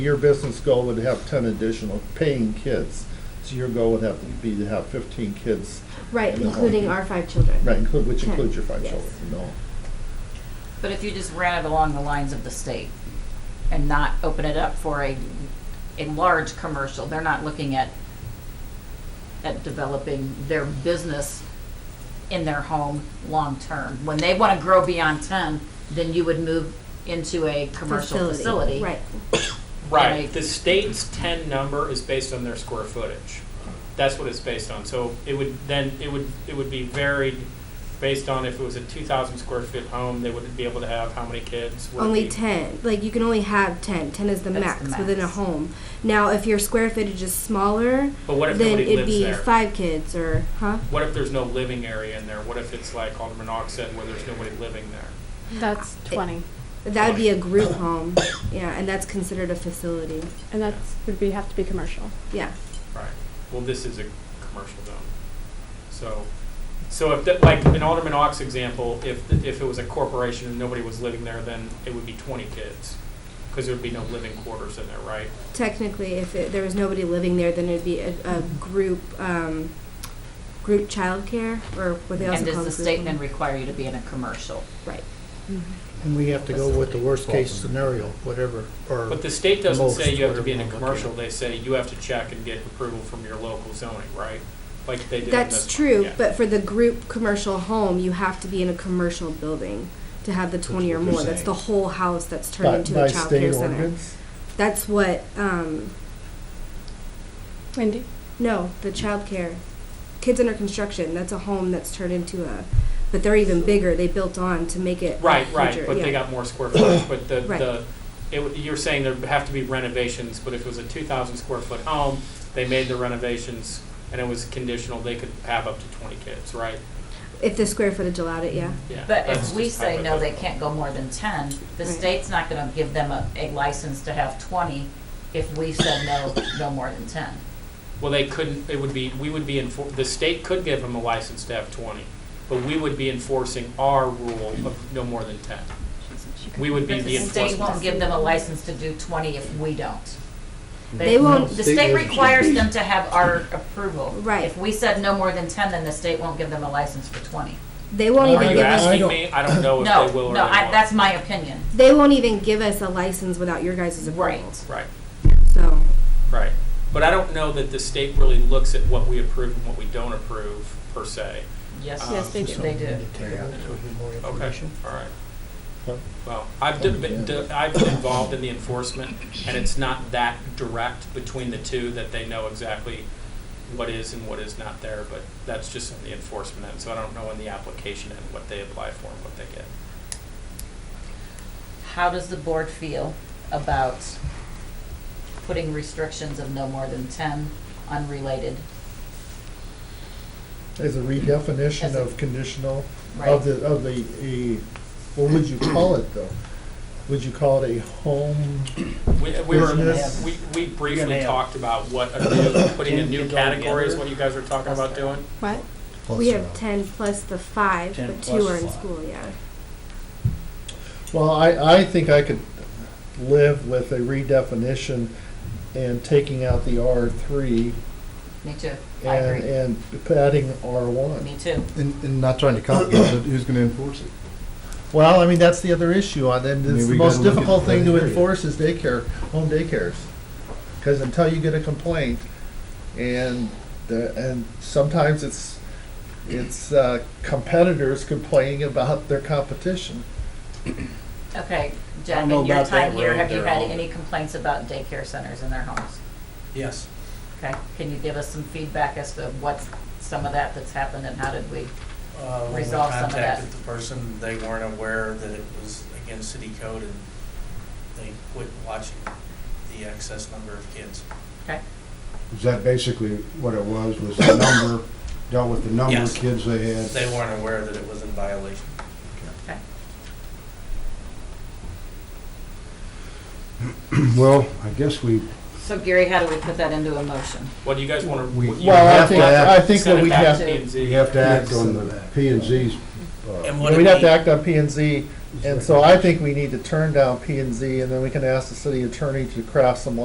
Your business goal would have ten additional paying kids. So your goal would have to be to have fifteen kids, Right, And the whole including group. our five children. right, include, which Ten, includes your five yes. children, no. But if you just ran it along the lines of the state and not open it up for a, a large commercial, they're not looking at, at developing their business in their home long-term. When they want to grow beyond ten, then you would move into a commercial facility. Right, Right. Right, the state's ten number is based on their square footage. That's what it's based on, so it would, then, it would, it would be varied based on if it was a two thousand square foot home, they would be able to have how many kids? would it only be- ten. Like you can only have ten. Ten is the, That's max, the within a max. home. Now, if your square footage is smaller, But what if then nobody it'd lives be there? five kids or huh? What if there's no living area in there? What if it's like Alderman Ock said, where there's nobody living there? That's 20. That would be a group home. Yeah, and that's considered a facility. And that would be, have to be commercial. Yeah. Right. Well, this is a commercial zone. So, so if, that- like, in Alderman Ock's example, if, the- if it was a corporation and nobody was living there, then it would be twenty kids. Because there would be no living quarters in there, right? Technically, if it, there was nobody living there, then it'd be a, a group um, group childcare or what they also And call does the group state home. then require you to be in a commercial? Right. And we have to go with the worst-case scenario, whatever, or, But the state doesn't Most, say you have to be in a whatever you commercial, look they say you have to check and get approval from your local zoning, right? Like they did in That's this one, true, yeah. but for the group commercial home, you have to be in a commercial building to have the twenty or what you're more. That's the whole house that's By- turned into a by child state care center. ordinance? That's what, um, Wendy? no, the child care, kids under construction, that's a home that's turned into a, but they're even bigger. They built on to make it. Right, right, larger, but they yeah. got more square footage, but the, Right. the, it, would- you're saying there have to be renovations, but if it was a two thousand square foot home, they made the renovations, and it was conditional, they could have up to twenty kids, right? If the square footage allowed it, yeah. Yeah, But that's if we just say, no, they hypothetical. can't go more than ten, the Right. state's not gonna give them a, a license to have twenty if we said no, no more than ten. Well, they couldn't, it would be, we would be enfor, the state could give them a license to have twenty, but we would be enforcing our rule of no more than ten. We would be But the the state enforcement. won't give them a license to do twenty if we don't. They won't- The state requires them to have our approval. Right. If we said no more than ten, then the state won't give them a license for twenty. They won't Are even you give us, I asking don't- me? I don't know Oh, if No, they will or they won't. no, I, that's my opinion. they won't even give us a license without your guys' Right. approval. Right. So, Right. But I don't know that the state really looks at what we approve and what we don't approve, per se. Yes. Yes, they do. They do. take a look, so we get more Okay, information. all Huh? right. Well, I've d- been, d- I've been involved in the enforcement, and it's not that direct between the two that they know exactly what is and what is not there, but that's just in the enforcement end, so I don't know in the application end what they apply for and what they get. How does the board feel about putting restrictions of no more than ten unrelated? As a As redefinition a- of conditional, Right. of the, of the, a, what would you call it though? Would you call it a home? We, we were, Business. we, we You're briefly gonna talked about what, a new- putting a new Didn't you go category is together? what you guys were talking about doing? What? we have ten plus the five, 10 but plus two are in five. school, yeah. Well, I, I think I could live with a redefinition and taking out the R three Me too. I and, agree. and adding R one. Me too. And, and not trying to complicate it, who's gonna enforce it? Well, I mean, that's the other issue on them. I mean, It's the we most gotta look at difficult that thing to area. enforce is daycare, home daycares. Because until you get a complaint, and, the- and sometimes it's, it's uh, competitors complaining about their competition. Okay, I don't Jen, know in your about that time here, road have you there, had I'll- any complaints about daycare centers in their homes? Yes. Okay, can you give us some feedback as to what's some of that that's happened and how did we? Uh, When we Resolve some of that. contacted the person, they weren't aware that it was against city code and they quit watching the excess number of kids. Is that basically what it was, was the number, dealt with the number of Yes. kids they had? They weren't aware that it was in violation. Well, I guess we, So Gary, how do we put that into a motion? What do you guys want to? We- you Well, I have think- to I think send what it we back have- to P&Z? we have to act Yes. on the P and Z's. uh, And would it We'd have be- to act on P and Z And so I think we need to turn down P and Z, and then we can ask the city attorney to craft some